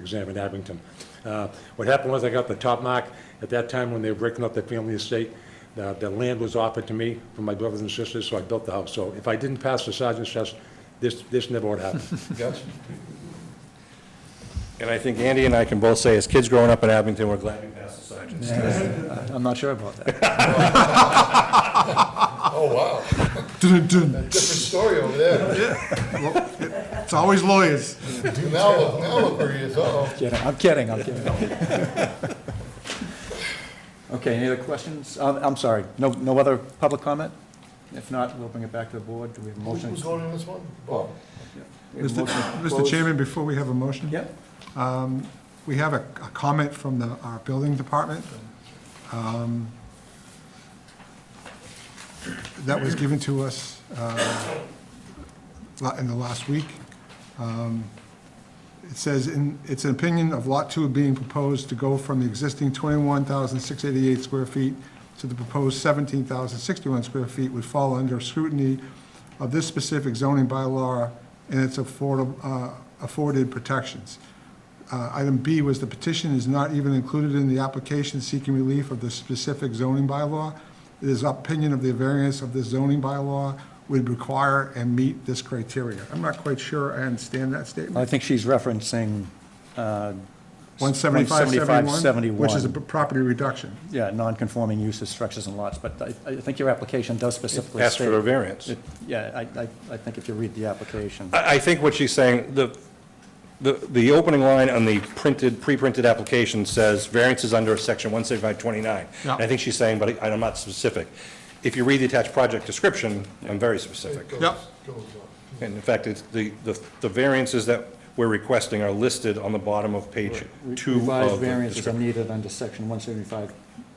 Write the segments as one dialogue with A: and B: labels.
A: exam in Abington. Uh, What happened was I got the top mark. At that time, when they were breaking up the family estate, the, the land was offered to me from my brothers and sisters, so I built the house. So if I didn't pass the sergeant's test, this, this never would happen.
B: Gotcha. And I think Andy and I can both say, as kids growing up in Abington, we're glad we passed the sergeant's.
C: I'm not sure about that.
D: Oh, wow.
E: Dun-dun-dun.
D: Different story over there.
E: It's always lawyers.
D: Now look, now look where he is, uh-oh.
C: Kidding, I'm kidding, I'm kidding. Okay, any other questions? Um, I'm sorry, no, no other public comment? If not, we'll bring it back to the board. Do we have a motion? Oh.
D: Who's going in this one? Bob.
C: We have a
E: Mr.
C: motion to
E: Mr.
C: close.
E: Chairman, before we have a motion.
C: Yep,
E: We have a, a comment from the, our building department. um, That was given to us, uh, la- in the last week. Um, It says, in, it's an opinion of Lot Two being proposed to go from the existing twenty-one thousand six eighty-eight square feet to the proposed seventeen thousand sixty-one square feet would fall under scrutiny of this specific zoning bylaw and its affordable, uh, afforded protections. Uh, Item B was the petition is not even included in the application seeking relief of the specific zoning bylaw. It is opinion of the variance of the zoning bylaw would require and meet this criteria. I'm not quite sure I understand that
C: I
E: statement.
C: think she's referencing, uh,
E: 17571, which is a
C: 175-71.
E: p- property reduction.
C: yeah, non-conforming uses, structures, and lots, but I, I think your application does specifically
B: Asked
C: state.
B: for a variance.
C: it- Yeah, I, I, I think if you read the application,
B: I, I think what she's saying, the, the, the opening line on the printed, pre-printed application says variances under section 17529.
E: Yeah.
B: And I think she's saying, but I- I'm not specific. If you read the attached project description, I'm very specific.
D: Goes-
E: Yep.
D: goes uh, on.
B: And in fact, it's the, the the variances that we're requesting are listed on the bottom of page two
C: revised
B: of the
C: variances are
B: description.
C: needed under section one seventy-five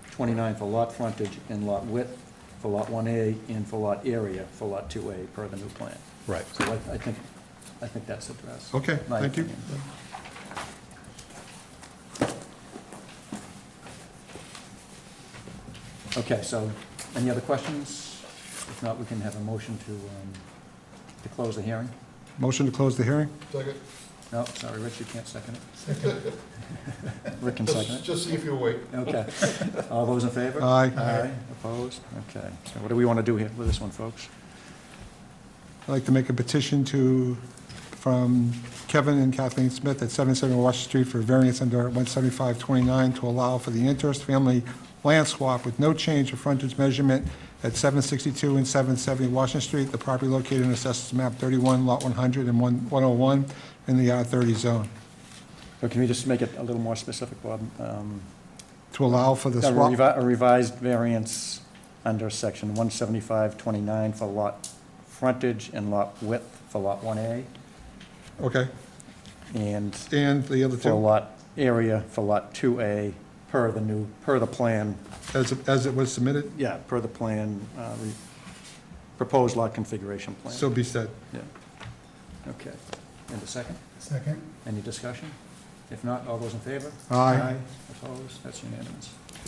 C: twenty-nine for lot frontage and lot width, for lot one A, and for lot area, for lot two A, per the new plan.
B: Right.
C: So I, I think, I think that's addressed.
E: Okay,
C: My
E: thank you.
C: opinion. Okay, so, any other questions? If not, we can have a motion to, um, to close the hearing.
E: Motion to close the hearing?
D: Second.
C: No, sorry, Rich, you can't second it. Rick can second
D: Just,
C: it.
D: just see if you're awake.
C: Okay. All those in favor?
E: Aye.
C: Aye, opposed? Okay. So what do we want to do here with this one, folks?
E: I'd like to make a petition to, from Kevin and Kathleen Smith at 770 Washington Street for variance under 17529 to allow for the interest family land swap with no change of frontage measurement at 762 and 770 Washington Street, the property located in Assessors Map 31, Lot 100 and 1- 101, in the R30 zone,
C: Or can we just make it a little more specific, Bob? Um,
E: to allow for the
C: A
E: swap.
C: revi- a revised variance under section one seventy-five twenty-nine for lot frontage and lot width for lot one A,
E: Okay,
C: and
E: and the other
C: for
E: two,
C: lot area for lot two A, per the new, per the plan,
E: as, as it was submitted,
C: yeah, per the plan, uh, re- proposed lot configuration plan.
E: so be said.
C: Yeah. Okay. And a second?
E: Second.
C: Any discussion? If not, all those in favor?
E: Aye.
C: Opposed? That's unanimous.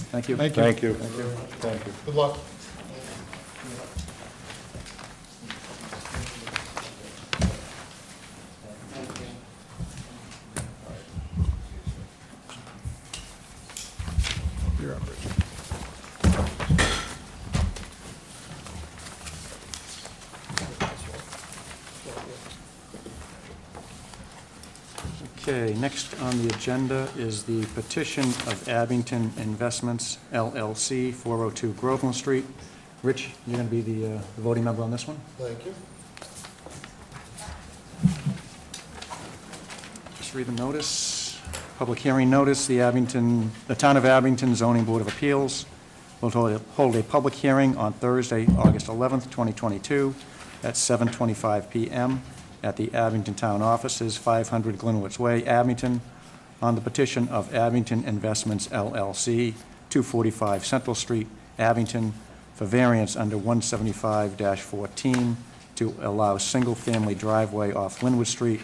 C: Thank you.
E: Thank you.
B: Thank you.
C: Thank you.
B: Thank you.
D: Good luck.
E: You're up, Rich.
C: Okay, next on the agenda is the petition of Abington Investments LLC, 402 Groveland Street. Rich, you're going to be the uh, the voting member on this one?
D: Thank you.
C: Just read the notice. Public hearing notice, the Abington, the Town of Abington Zoning Board of Appeals will hold a- hold a public hearing on Thursday, August 11th, 2022, at 7:25 PM at the Abington Town Offices, 500 Glenwood's Way, Abington, on the petition of Abington Investments LLC, 245 Central Street, Abington, for variance under 175-14 to allow single-family driveway off Linwood Street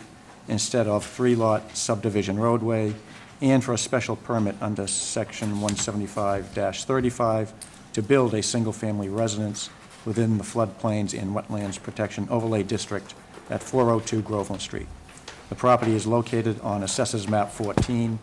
C: instead of three-lot subdivision roadway, and for a special permit under Section 175-35 to build a single-family residence within the floodplains and wetlands protection overlay district at 402 Groveland Street. The property is located on Assessors Map 14,